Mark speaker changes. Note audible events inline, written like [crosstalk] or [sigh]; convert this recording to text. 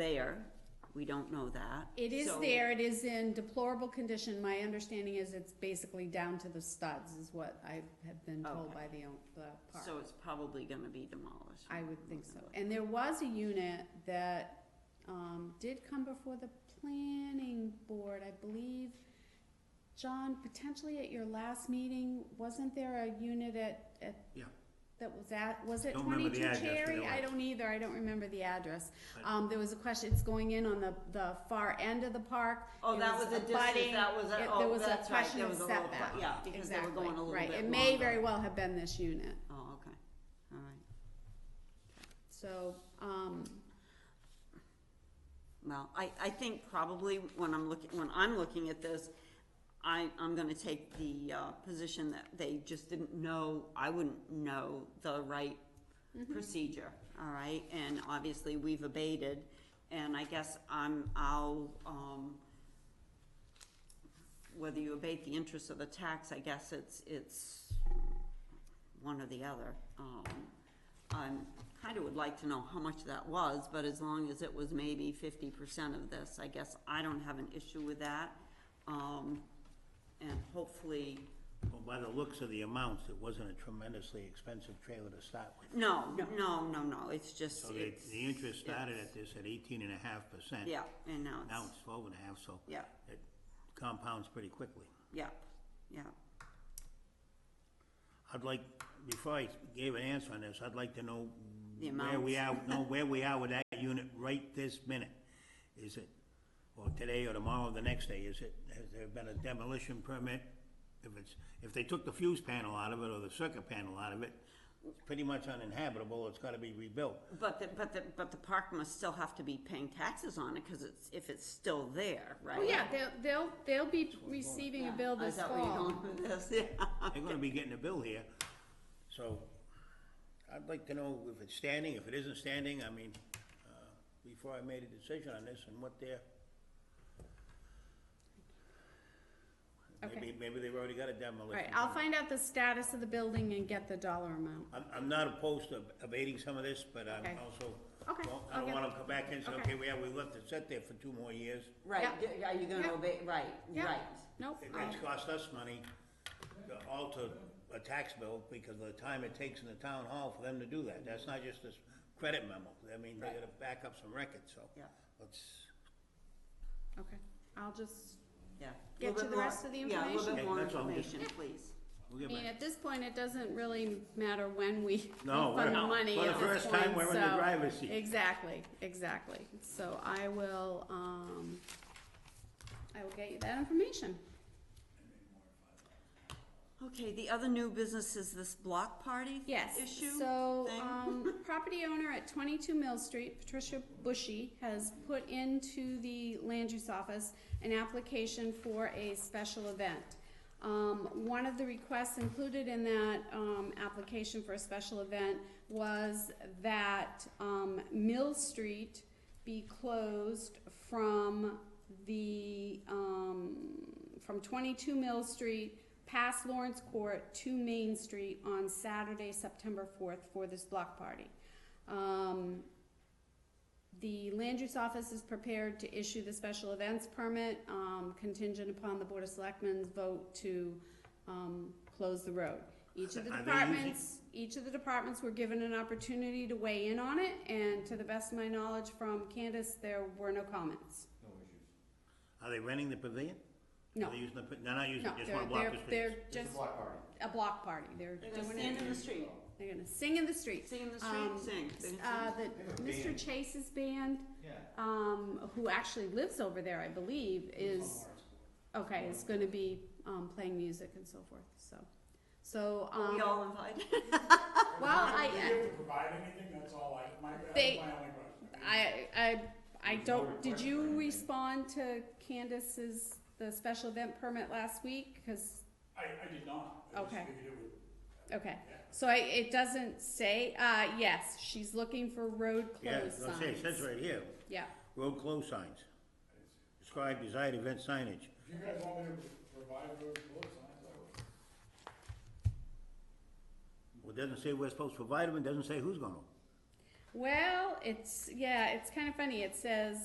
Speaker 1: there, we don't know that.
Speaker 2: It is
Speaker 1: So-
Speaker 2: there, it is in deplorable condition, my understanding is it's basically down to the studs, is what I have been told
Speaker 1: Okay.
Speaker 2: by the, own- the park.
Speaker 1: So it's probably gonna be demolished.
Speaker 2: I would think so, and there was a unit that, um, did come before the planning board, I believe. John, potentially at your last meeting, wasn't there a unit at, at
Speaker 3: Yeah,
Speaker 2: that was at, was it
Speaker 3: Don't remember
Speaker 2: twenty-two
Speaker 3: the address, but
Speaker 2: Cherry?
Speaker 3: it
Speaker 2: I
Speaker 3: was.
Speaker 2: don't either, I don't remember the address.
Speaker 3: But-
Speaker 2: Um, there was a question, it's going in on the, the far end of the park.
Speaker 1: Oh,
Speaker 2: It
Speaker 1: that was a distance,
Speaker 2: abutting-
Speaker 1: that was,
Speaker 2: it-
Speaker 1: a-
Speaker 2: there
Speaker 1: oh,
Speaker 2: was a
Speaker 1: that's right,
Speaker 2: question
Speaker 1: there
Speaker 2: of
Speaker 1: was a little,
Speaker 2: setback.
Speaker 1: yeah, because they were
Speaker 2: Exactly,
Speaker 1: going a little bit
Speaker 2: right.
Speaker 1: longer.
Speaker 2: It may very well have been this unit,
Speaker 1: Oh, okay, all right.
Speaker 2: so, um,
Speaker 1: Well, I, I think probably when I'm looking, when I'm looking at this, I, I'm gonna take the, uh, position that they just didn't know, I wouldn't know the right procedure, all right? And obviously, we've abated, and I guess I'm, I'll, um, whether you abate the interest of the tax, I guess it's, it's one or the other. Um, I'm, kinda would like to know how much that was, but as long as it was maybe fifty percent of this, I guess I don't have an issue with that. Um, and hopefully,
Speaker 3: well, by the looks of the amounts, it wasn't a tremendously expensive trailer to start with.
Speaker 1: no, no, no, no, it's just,
Speaker 3: So the,
Speaker 1: it's.
Speaker 3: the interest started
Speaker 1: it's-
Speaker 3: at this at eighteen and a half percent.
Speaker 1: Yeah, and now
Speaker 3: Now
Speaker 1: it's,
Speaker 3: it's twelve and a half, so
Speaker 1: yeah,
Speaker 3: it compounds pretty quickly.
Speaker 1: yeah, yeah,
Speaker 3: I'd like, before I gave an answer on this, I'd like to know
Speaker 1: The
Speaker 3: where we are, know where we are with that unit right this minute. Is it, or today or tomorrow, or the next day, is it, has there been a demolition permit? If it's, if they took the fuse panel out of it or the circuit panel out of it, it's pretty much uninhabitable, it's gotta be rebuilt.
Speaker 1: but the, but the, but the park must still have to be paying taxes on it, cause it's, if it's still there, right?
Speaker 2: oh yeah, they'll, they'll, they'll be receiving a bill
Speaker 1: Yeah,
Speaker 2: this
Speaker 1: Is that where you're
Speaker 2: fall.
Speaker 1: going with this, [laughs] yeah?
Speaker 3: They're gonna be getting a bill here, so I'd like to know if it's standing, if it isn't standing, I mean, uh, before I made a decision on this and what they're. Maybe, maybe they've already got a demolition.
Speaker 2: Right, I'll
Speaker 3: permit.
Speaker 2: find out the status of the building and get the dollar amount.
Speaker 3: I'm, I'm not opposed to abating some of this, but I'm
Speaker 2: Okay.
Speaker 3: also,
Speaker 2: Okay,
Speaker 3: don't- I
Speaker 2: okay.
Speaker 3: don't wanna come back and say,
Speaker 2: Okay.
Speaker 3: okay, we have, we left it set there for two more years.
Speaker 1: Right,
Speaker 2: Yeah.
Speaker 1: d- are you gonna
Speaker 2: Yeah.
Speaker 1: obey, right,
Speaker 2: Yeah.
Speaker 1: right,
Speaker 2: Nope,
Speaker 3: It-
Speaker 2: I'll-
Speaker 3: It's cost us money to alter a tax bill because of the time it takes in the town hall for them to do that. That's not just this credit memo. I mean, they gotta back up some records, so.
Speaker 1: Yeah.
Speaker 3: Let's,
Speaker 2: okay, I'll just
Speaker 1: yeah. Little
Speaker 2: Get you
Speaker 1: bit
Speaker 2: the
Speaker 1: more-
Speaker 2: rest of the
Speaker 1: Yeah, a little
Speaker 3: information?
Speaker 1: bit more
Speaker 3: Okay, that's all.
Speaker 1: information, please.
Speaker 3: we'll get
Speaker 2: I mean,
Speaker 3: back.
Speaker 2: at this point, it doesn't really matter when we [laughs]
Speaker 3: No,
Speaker 2: fund the
Speaker 3: we're-
Speaker 2: money
Speaker 3: for the
Speaker 2: at this
Speaker 3: first time,
Speaker 2: point,
Speaker 3: we're in the
Speaker 2: so-
Speaker 3: driver's seat.
Speaker 2: Exactly, exactly. So I will, um, I will get you that information.
Speaker 1: Okay, the other new business is this block party
Speaker 2: Yes,
Speaker 1: issue?
Speaker 2: so,
Speaker 1: thing? [laughs]
Speaker 2: um, property owner at twenty-two Mill Street, Patricia Bushy, has put into the land use office an application for a special event. Um, one of the requests included in that, um, application for a special event was that, um, Mill Street be closed from the, um, from twenty-two Mill Street past Lawrence Court to Main Street on Saturday, September fourth for this block party. Um, the land use office is prepared to issue the special events permit, um, contingent upon the Board of Selectmen's vote to, um, close the road. Each of the
Speaker 3: Are they using-
Speaker 2: departments, each of the departments were given an opportunity to weigh in on it, and to the best of my knowledge from Candace, there were no comments.
Speaker 3: Are they renting the pavilion?
Speaker 2: No,
Speaker 3: Are they using the, pa- they're not using
Speaker 2: no,
Speaker 3: it, just
Speaker 2: they're,
Speaker 3: wanna block
Speaker 2: they're,
Speaker 3: the streets?
Speaker 2: they're just a block party, they're
Speaker 1: They're gonna
Speaker 2: doing
Speaker 1: stand
Speaker 2: it,
Speaker 1: in the street,
Speaker 2: they're gonna sing in the streets.
Speaker 1: sing in the
Speaker 2: Um,
Speaker 1: street, sing. They're gonna
Speaker 2: Uh,
Speaker 1: sing.
Speaker 2: the, Mr. Chase's band, um, who actually lives over there, I believe, is, okay, is gonna be, um, playing music and so forth, so. So,
Speaker 1: Are We
Speaker 2: um,
Speaker 1: all invited.
Speaker 2: well, I,
Speaker 4: Do you have to provide anything? That's all I, my, that's
Speaker 2: They-
Speaker 4: my only question.
Speaker 2: I, I, I don't, did you respond to Candace's, the special event permit last week? Cause
Speaker 4: I, I did not. I just
Speaker 2: Okay.
Speaker 4: figured it would-
Speaker 2: Okay, so I, it doesn't say, uh, yes, she's looking for road
Speaker 3: Yeah,
Speaker 2: closed
Speaker 3: I'll say, it says
Speaker 2: signs.
Speaker 3: right here,
Speaker 2: Yeah,
Speaker 3: road close signs. Describe desired event signage.
Speaker 4: If you guys want me to provide road closed signs, I would.
Speaker 3: Well, it doesn't say we're supposed to provide them, it doesn't say who's gonna.
Speaker 2: Well, it's, yeah, it's kind of funny. It says,